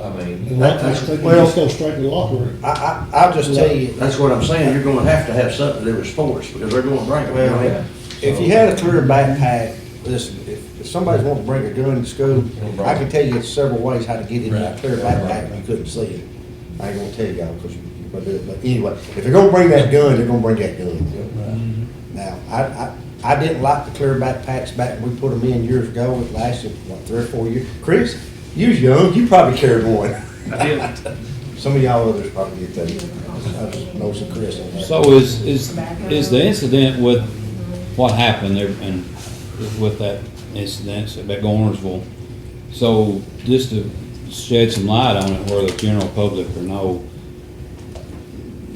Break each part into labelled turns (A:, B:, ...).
A: I mean,
B: That- that's-
C: I think we
B: well-
C: just go straight to the locker room.
B: I, I, I'll just tell you,
D: That's what I'm saying, you're gonna have to have something to do with sports, because they're gonna bring them, you know?
B: well, if you had a clear backpack, listen, if, if somebody's wanting to bring a gun to school, I can tell you several ways how to get in that clear backpack and you couldn't see it. I ain't gonna tell you y'all, cause you, you're gonna do it, but anyway, if they're gonna bring that gun, they're gonna bring that gun. Now, I, I, I didn't like the clear backpacks back, when we put them in years ago, it lasted, what, three or four years? Chris, you was young, you probably carried one. Some of y'all others probably did too. I just know some Chris on that.
E: So is, is, is the incident with what happened there and with that incident at Gornersville? So just to shed some light on it where the general public or no,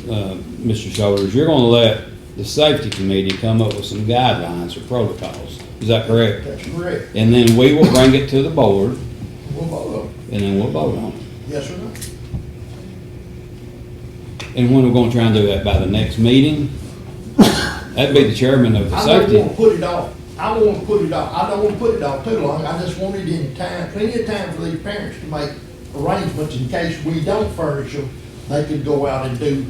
E: uh, Mr. Shoulders, you're gonna let the safety committee come up with some guidelines or protocols. Is that correct?
D: That's correct.
E: And then we will bring it to the board
D: Well, both of them.
E: and then we'll vote on it.
D: Yes or no?
E: And when we're gonna try and do that by the next meeting? That'd be the chairman of the
F: I don't
E: safety.
F: wanna put it off, I don't wanna put it off, I don't wanna put it off too long, I just want it in time, plenty of time for these parents to make arrangements in case we don't furnish them, they could go out and do.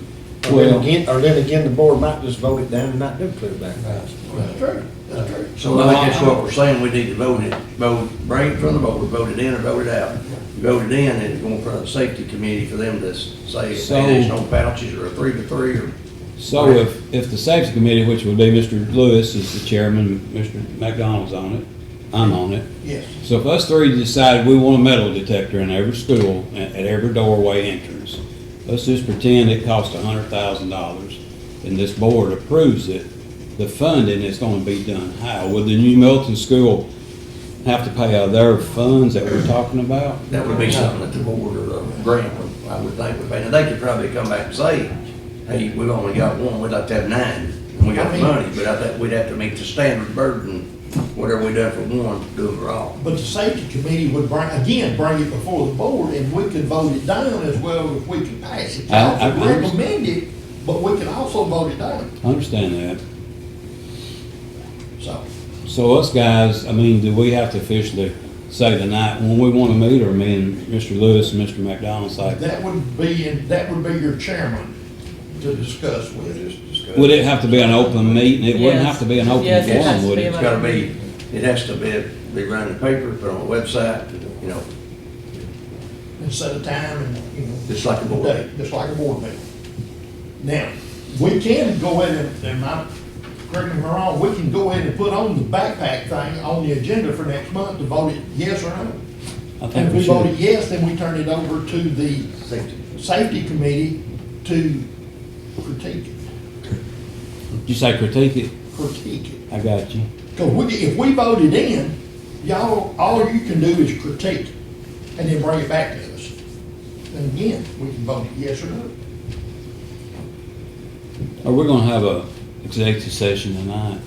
D: Or then
E: Well-
D: again, or then again, the board might just vote it down and not do clear backpacks.
F: That's true, that's true.
D: So I think that's what we're saying, we need to vote it, vote, bring it from the board, vote it in or vote it out. Vote it in, and it's going in front of the safety committee for them to say if
E: So-
D: it is no pouches or a three to three or.
E: So if, if the safety committee, which would be Mr. Lewis is the chairman, Mr. McDonald's on it, I'm on it.
F: Yes,
E: So if us three decide we want a metal detector in every school, at, at every doorway entrance, let's just pretend it costs a hundred thousand dollars and this board approves it, the funding is gonna be done how? Would the new Milton school have to pay out of their funds that we're talking about?
D: That would be something that the board or the grant would, I would think would be, and they could probably come back and say, hey, we've only got one, we'd like to have nine, and we got the money, but I think we'd have to meet the standard burden, whatever we done for one, do it for all.
F: but the safety committee would bring, again, bring it before the board, and we could vote it down as well if we could pass it.
E: I- I-
F: I would recommend it, but we can also vote it down,
E: I understand that.
F: so.
E: So us guys, I mean, do we have to officially say the night when we want to meet, or me and Mr. Lewis and Mr. McDonald say?
F: That would be, in- that would be your chairman to discuss with.
E: Would it have to be an open meeting? It wouldn't
G: Yes.
E: have to be an open
G: Yes, it has
E: forum,
G: to
E: would
G: be
E: it?
D: It's gotta be, it has to be, be run in the paper, put on a website, you know,
F: and set a time and, you know.
D: Just like a board.
F: day, Just like a board meeting. Now, we can go ahead and, and I, correct me if I'm wrong, we can go ahead and put on the backpack thing on the agenda for next month to vote it yes or no.
E: I
F: And
E: think
F: if
E: we
F: we vote it
E: should.
F: yes, then we turn it over to the
D: safety.
F: safety committee to critique it,
E: You say critique it?
F: critique it.
E: I got you.
F: Cause we, if we voted in, y'all, all you can do is critique and then bring it back to us. And again, we can vote it yes or no.
E: Are we gonna have a executive session tonight?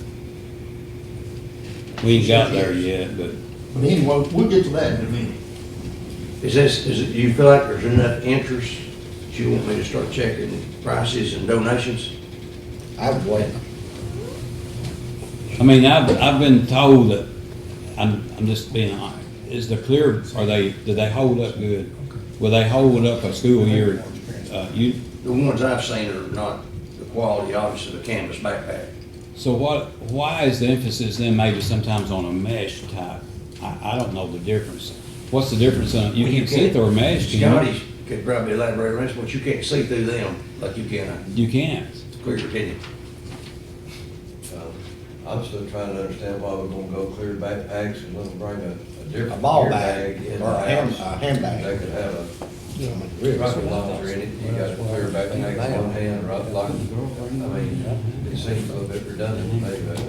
E: We ain't got there yet, but
F: But anyway, we'll get to that in a minute.
D: Is this, is it, do you feel like there's enough interest that you want me to start checking prices and donations?
B: I would wait.
E: I mean, I've, I've been told that, I'm, I'm just being honest, is the clear, are they, do they hold up good? Will they hold up a school year, uh, you,
D: The ones I've seen are not the quality, obviously, of a canvas backpack.
E: So what, why is the emphasis then maybe sometimes on a mesh type? I, I don't know the difference. What's the difference on, you can see through a mesh, can you?
D: Scotty could probably elaborate on this, but you can't see through them like you can a
E: You can't.
D: clear opinion.
A: I'm still trying to understand why we're gonna go clear backpacks and let them bring a, a different.
B: A ball
A: beer
B: bag
A: in
B: or
A: the
B: a hand-
A: house.
B: a handbag.
A: They could have a
B: Right.
A: rocket launcher in it, you got a clear backpack in one hand, rocket launcher. I mean, it seems a little bit redundant, maybe, but.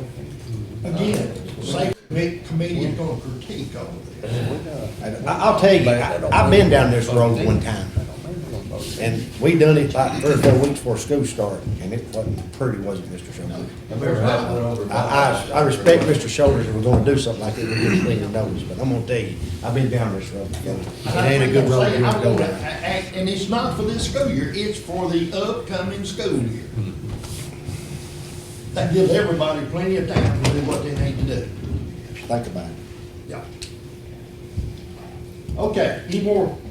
F: Again, safety commi- committee is gonna critique all of this.
B: I- I'll tell you, I- I've been down this road one time. And we done it like three or four weeks before school started, and it wasn't pretty, was it, Mr. Shoulders?
A: I remember having one over.
B: I, I, I respect Mr. Shoulders if we're gonna do something like that, we get clean and notice, but I'm gonna tell you, I've been down this road before. It ain't a good road to
F: And I'm
B: go
F: gonna
B: down.
F: act- And it's not for this school year, it's for the upcoming school year. That gives everybody plenty of time to do what they need to do.
B: Think about it.
F: Yeah. Okay, any more